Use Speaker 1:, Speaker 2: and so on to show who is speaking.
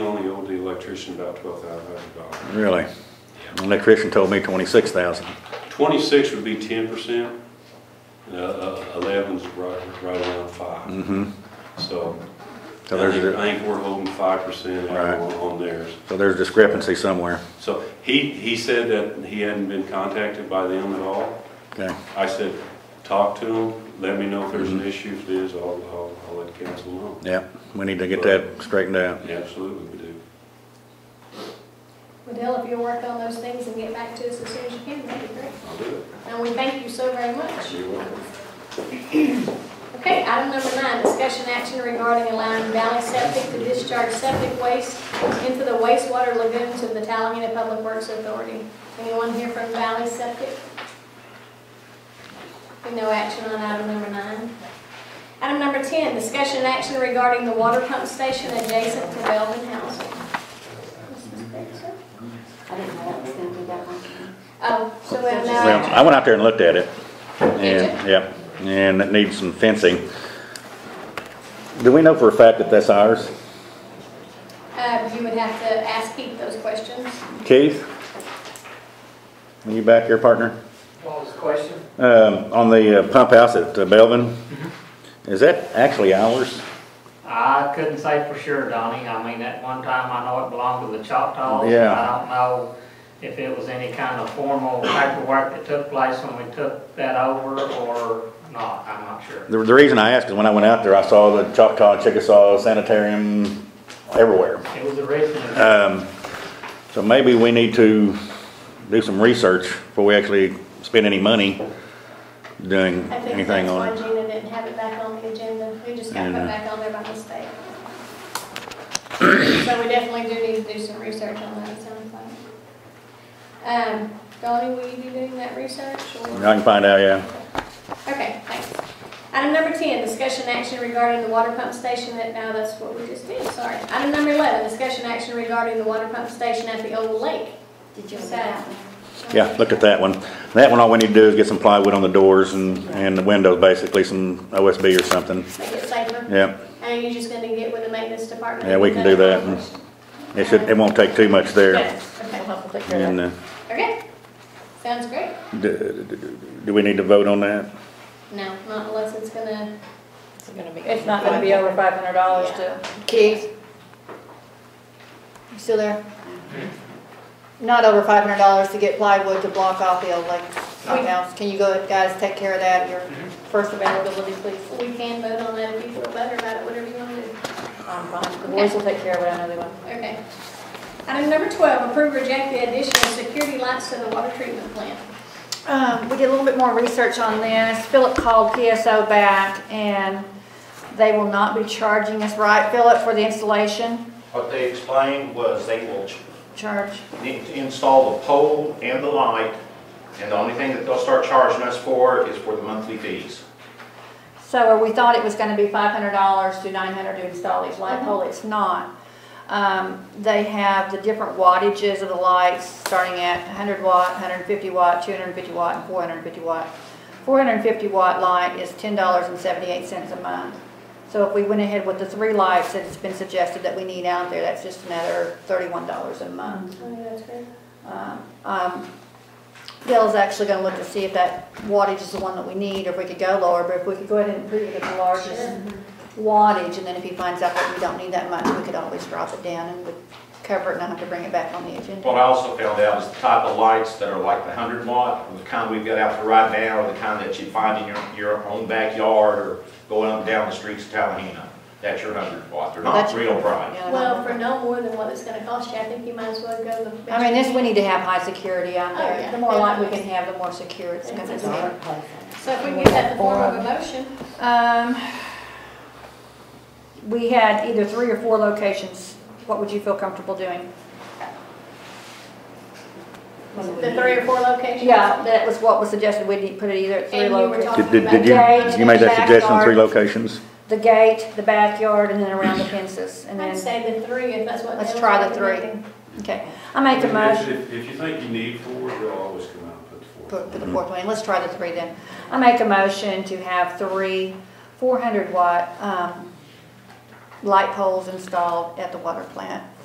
Speaker 1: electrician about twelve thousand dollars.
Speaker 2: Really? Electrician told me twenty-six thousand.
Speaker 1: Twenty-six would be ten percent, and uh, uh, eleven's right, right around five.
Speaker 2: Mm-hmm.
Speaker 1: So I
Speaker 2: So there's
Speaker 1: think,
Speaker 2: a-
Speaker 1: I think we're holding five percent
Speaker 2: Right.
Speaker 1: on on theirs.
Speaker 2: So there's discrepancy somewhere.
Speaker 1: So he, he said that he hadn't been contacted by them at all.
Speaker 2: Okay,
Speaker 1: I said, talk to them, let me know if there's
Speaker 2: Mm-hmm.
Speaker 1: an issue, if there's, I'll, I'll, I'll let council know.
Speaker 2: yeah, we need to get that straightened out.
Speaker 1: Absolutely, we do.
Speaker 3: Adele, if you'll work on those things and get back to us as soon as you can, that'd be great.
Speaker 1: I'll do
Speaker 3: And we thank you so very much.
Speaker 1: it. You're welcome.
Speaker 3: Okay, item number nine, discussion action regarding allowing Valley Septic to discharge septic waste into the wastewater lagoons of the Tallahassee Public Works Authority. Anyone here from Valley Septic? And No action on item number nine. Item number 10, discussion and action regarding the water pump station adjacent to Belvin Housing. Mrs. Spencer?
Speaker 4: I didn't know that was gonna be that long.
Speaker 3: Oh, so we have no
Speaker 2: Well,
Speaker 3: action.
Speaker 2: I went out there and looked at it.
Speaker 3: Did
Speaker 2: And, yeah, and it needs some fencing. Do we know for a fact that that's ours?
Speaker 3: Uh, You would have to ask Pete those questions.
Speaker 2: Keith? Are you back here, partner?
Speaker 5: What was the question?
Speaker 2: Um, on the uh, pump house at uh, Belvin? Is that actually ours?
Speaker 5: I couldn't say for sure, Donnie. I mean, at one time, I know it belonged to the Choctaws.
Speaker 2: Yeah.
Speaker 5: I don't know if it was any kind of formal paperwork that took place when we took that over or not. I'm not sure.
Speaker 2: The, the reason I asked is when I went out there, I saw the Choctaw, Chickasaw Sanitarium everywhere.
Speaker 5: It was originally.
Speaker 2: Um, so maybe we need to do some research before we actually spend any money doing
Speaker 3: I think
Speaker 2: anything
Speaker 3: that's
Speaker 2: on
Speaker 3: why
Speaker 2: it.
Speaker 3: Gina didn't have it back on the agenda. We just got
Speaker 2: And,
Speaker 3: put
Speaker 2: uh,
Speaker 3: back on there by mistake. So we definitely do need to do some research on that, it sounds like. Um, Donnie, will you be doing that research?
Speaker 2: I
Speaker 3: or-
Speaker 2: can find out, yeah.
Speaker 3: Okay, thanks. Item number 10, discussion action regarding the water pump station that, now that's what we just did, sorry. Item number 11, discussion action regarding the water pump station at the old lake.
Speaker 4: Did you look at that?
Speaker 2: Yeah, look at that one. That one, all we need to do is get some plywood on the doors and, and the windows, basically, some OSB or something.
Speaker 3: Make it safer.
Speaker 2: Yeah,
Speaker 3: And you're just gonna get with the maintenance department?
Speaker 2: yeah, we can do that. and It should, it won't take too much there.
Speaker 3: Good, okay.
Speaker 2: And, uh,
Speaker 3: Okay, sounds great.
Speaker 2: do, do- do we need to vote on that?
Speaker 3: No, not unless it's gonna,
Speaker 6: It's gonna be.
Speaker 7: It's not gonna be over five hundred dollars to,
Speaker 6: Keith? You still there? Not over five hundred dollars to get plywood to block off the old lake outhouse. Can you go, guys, take care of that, your first availability, please?
Speaker 3: we can vote on that if you feel better about it, whatever you wanna do.
Speaker 7: I'm fine, the boys will take care of it, I know they will.
Speaker 3: Okay. Item number twelve, approve or reject the addition of security lights to the water treatment plant.
Speaker 6: Um, we did a little bit more research on this. Philip called PSO back and they will not be charging us, right, Philip, for the installation
Speaker 8: What they explained was they will
Speaker 6: charge?
Speaker 8: need to install the pole and the light, and the only thing that they'll start charging us for is for the monthly fees.
Speaker 6: So we thought it was gonna be five hundred dollars to nine hundred to install each light pole, it's not. Um, they have the different wattages of the lights, starting at hundred watt, hundred fifty watt, two hundred fifty watt, and four hundred fifty watt. Four hundred fifty watt light is ten dollars and seventy-eight cents a month. So if we went ahead with the three lights that it's been suggested that we need out there, that's just another thirty-one dollars a month.
Speaker 3: Oh, that's great.
Speaker 6: Um, um, Dale's actually gonna look to see if that wattage is the one that we need, or if we could go lower, but if we could go ahead and put it at the largest wattage, and then if he finds out that we don't need that much, we could always drop it down and would cover it, and not have to bring it back on the agenda.
Speaker 8: What I also found out is the type of lights that are like the hundred watt, or the kind we've got out there right now, or the kind that you find in your, your own backyard, or going up and down the streets of Tallahena. That's your hundred watt, they're not
Speaker 6: That's-
Speaker 8: real bright.
Speaker 6: Yeah,
Speaker 3: Well, for no more than what it's gonna cost you, I think you might as well go the.
Speaker 6: I mean, this, we need to have high security out
Speaker 3: Oh, yeah.
Speaker 6: there, the more light we can have, the more secure it's gonna
Speaker 3: That's
Speaker 6: be.
Speaker 3: So if we can get that in the form of a motion,
Speaker 6: Um, we had either three or four locations, what would you feel comfortable doing?
Speaker 3: the three or four locations.
Speaker 6: Yeah, that was what was suggested, we would put it either at three
Speaker 3: And you were
Speaker 6: locations.
Speaker 3: talking
Speaker 2: Did, did did you, you made that suggestion, three locations?
Speaker 6: the gate, the backyard, and then around the fences, and
Speaker 3: I'd
Speaker 6: then,
Speaker 3: say the three, if that's what.
Speaker 6: Let's
Speaker 3: they
Speaker 6: try
Speaker 3: were
Speaker 6: the three.
Speaker 3: recommending.
Speaker 6: okay. I make a
Speaker 1: If-
Speaker 6: motion,
Speaker 1: If, if you think you need four, they'll always come out and put the four.
Speaker 6: put put the fourth one in, let's try the three then. I make a motion to have three four hundred watt, um, light poles installed at the water plant